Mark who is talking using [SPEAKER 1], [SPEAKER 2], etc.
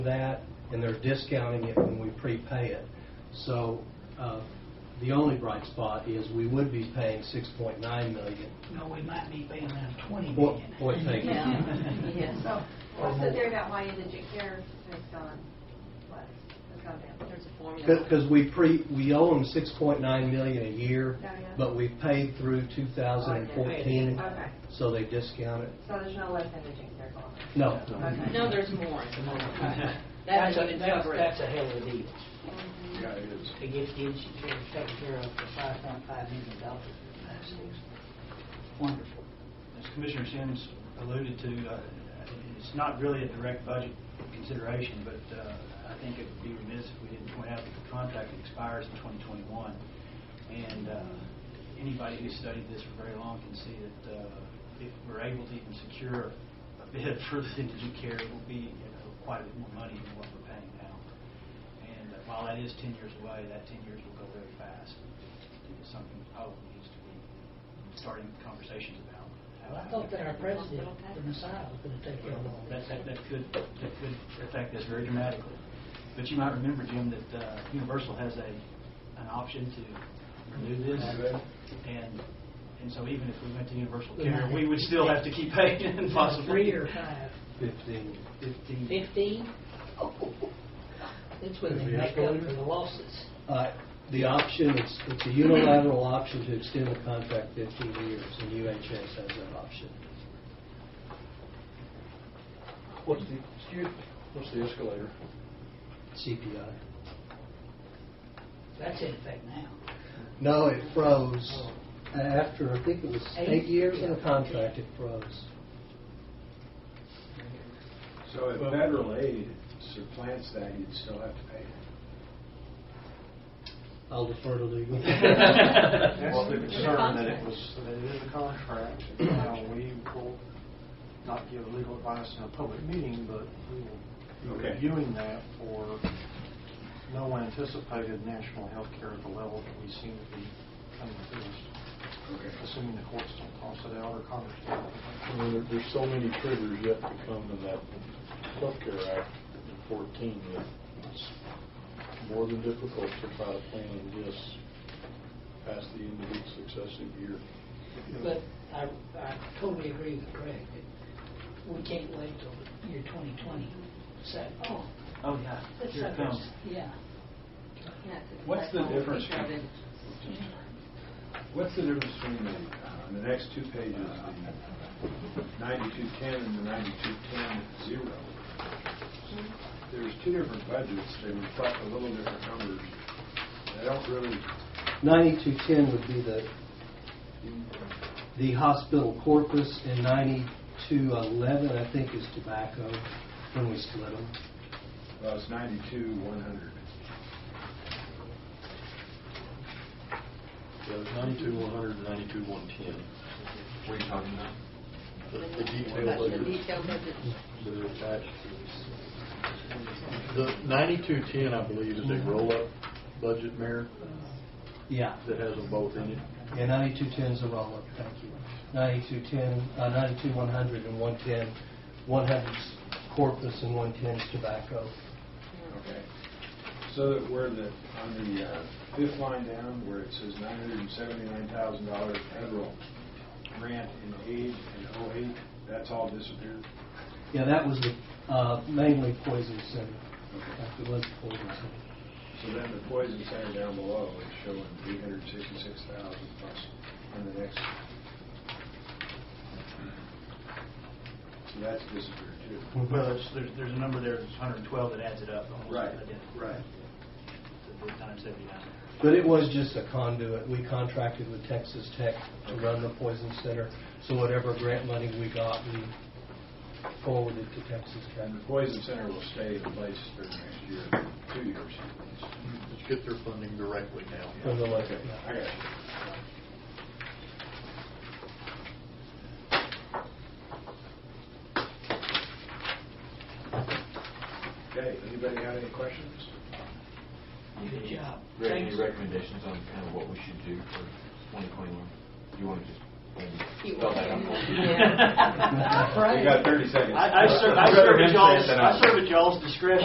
[SPEAKER 1] that, and they're discounting it when we prepay it. So uh, the only bright spot is we would be paying 6.9 million.
[SPEAKER 2] No, we might be paying around twenty
[SPEAKER 1] Boy,
[SPEAKER 2] million.
[SPEAKER 1] boy, thank you.
[SPEAKER 3] Yeah,
[SPEAKER 4] So,
[SPEAKER 3] yeah.
[SPEAKER 4] so there about why the JCare has gone, what, has gone down. There's a formula.
[SPEAKER 1] Because we pre, we owe them 6.9 million a year,
[SPEAKER 4] Yeah, Oh, yeah. Oh,
[SPEAKER 1] but we paid through 2014,
[SPEAKER 4] Okay,
[SPEAKER 1] so they discount it.
[SPEAKER 4] so there's no less than the JCare going.
[SPEAKER 1] No.
[SPEAKER 4] Okay.
[SPEAKER 3] No, there's more. That
[SPEAKER 2] That's
[SPEAKER 3] doesn't
[SPEAKER 2] a,
[SPEAKER 3] even
[SPEAKER 2] that's,
[SPEAKER 3] cover it.
[SPEAKER 2] that's a hell of a deal.
[SPEAKER 5] Yeah, it is.
[SPEAKER 2] To get the insurance taken care of for five point five million dollars. That's Wonderful.
[SPEAKER 6] As Commissioner Sims alluded to, uh, it's not really a direct budget consideration, but uh, I think it would be remiss if we didn't point out that the contract expires in 2021. And uh, anybody who's studied this for very long can see that uh, if we're able to even secure a bid for the indigent care, it will be you know, quite a bit more money than what we're paying now. And uh, while that is 10 years away, that 10 years will go very fast. It's something that probably needs to be starting conversations about.
[SPEAKER 2] Well, I thought that our president, the Messiah, was gonna take care of all that.
[SPEAKER 6] That, that, that could, that could affect this very dramatically. But you might remember, Jim, that uh, Universal has a, an option to renew this. And, and so even if we went to Universal
[SPEAKER 2] We might
[SPEAKER 6] Care, we
[SPEAKER 2] have
[SPEAKER 6] would
[SPEAKER 2] to
[SPEAKER 6] still have to keep paying and possibly.
[SPEAKER 2] Three or five,
[SPEAKER 1] 15.
[SPEAKER 6] Fifteen.
[SPEAKER 2] fifteen? That's when they make up for the losses.
[SPEAKER 1] Uh, The option, it's it's a unilateral option to extend the contract 15 years, and UHS has that option.
[SPEAKER 5] What's the, excuse, what's the escalator?
[SPEAKER 1] CPI.
[SPEAKER 2] That's in effect now.
[SPEAKER 1] No, it froze after, I think it was eight
[SPEAKER 2] Eight?
[SPEAKER 1] years in the contract, it froze.
[SPEAKER 7] So if federal aid supplants that, you'd still have to pay it.
[SPEAKER 1] I'll defer to legal.
[SPEAKER 7] That's the concern, that it was, that it is a contract, and now we will not give legal advice in a public meeting, but we will be
[SPEAKER 5] Okay.
[SPEAKER 7] reviewing that for no one anticipated national health care at the level that we seem to be coming to this, assuming the courts don't toss it out or Congress
[SPEAKER 5] I
[SPEAKER 7] doesn't.
[SPEAKER 5] mean, there- There's so many triggers yet to come in that healthcare act in fourteen that it's more than difficult to try to plan and guess past the end of each successive year.
[SPEAKER 2] But I, I totally agree with Craig that we can't wait till the year 2020 to say, oh,
[SPEAKER 6] Oh, yeah,
[SPEAKER 2] let's
[SPEAKER 6] here it
[SPEAKER 2] have
[SPEAKER 6] comes.
[SPEAKER 2] this. Yeah.
[SPEAKER 8] What's the difference between, what's the difference between the, uh, on the next two pages, the ninety-two ten and the ninety-two ten zero? There's two different budgets, they reflect a little different numbers. I don't really,
[SPEAKER 1] 9210 would be the, the hospital corpus, and 9211, I think, is tobacco, when we split them.
[SPEAKER 8] well, it's ninety-two one hundred.
[SPEAKER 5] Yeah, there's ninety-two, one hundred, and ninety-two, one ten.
[SPEAKER 8] What are you talking about?
[SPEAKER 5] The the detailed
[SPEAKER 3] That's the
[SPEAKER 5] budgets
[SPEAKER 3] detailed budget.
[SPEAKER 5] that are attached to this. The ninety-two, ten, I believe, is
[SPEAKER 3] Mm-hmm.
[SPEAKER 5] a roll-up budget, Mayor,
[SPEAKER 1] Yeah,
[SPEAKER 5] that has them both in it.
[SPEAKER 1] yeah, 9210 is a roll-up, thank you. 9210, uh, 92100 and 110, 100's corpus and 110's tobacco.
[SPEAKER 8] Okay. So that where the, on the uh, fifth line down, where it says nine hundred and seventy-nine thousand dollars federal grant in aid in oh eight, that's all disappeared?
[SPEAKER 1] Yeah, that was the, uh, mainly poison center. That was the poison center.
[SPEAKER 8] So then the poison center down below is showing three hundred sixty-six thousand plus on the next. So that's disappeared too.
[SPEAKER 6] Well, there's, there's, there's a number there, it's 112 that adds it up. almost identical.
[SPEAKER 8] right.
[SPEAKER 6] The three times 79.
[SPEAKER 1] But it was just a conduit. We contracted with Texas Tech to run the poison center, so whatever grant money we got, we forwarded to Texas Tech.
[SPEAKER 8] And the poison center will stay in place for the next year, two years.
[SPEAKER 5] Let's get their funding directly now.
[SPEAKER 1] From the local.
[SPEAKER 8] Okay, I got you. Okay, anybody got any questions?
[SPEAKER 2] Good job.
[SPEAKER 9] Greg, any
[SPEAKER 2] Thanks.
[SPEAKER 9] recommendations on kind of what we should do for 2021? Do you want to just?
[SPEAKER 3] You
[SPEAKER 9] spell
[SPEAKER 3] want
[SPEAKER 9] that out?
[SPEAKER 3] to-
[SPEAKER 2] Yeah.
[SPEAKER 8] You got 30 seconds.
[SPEAKER 6] I, I serve, I serve at y'all's, I serve at y'all's discretion.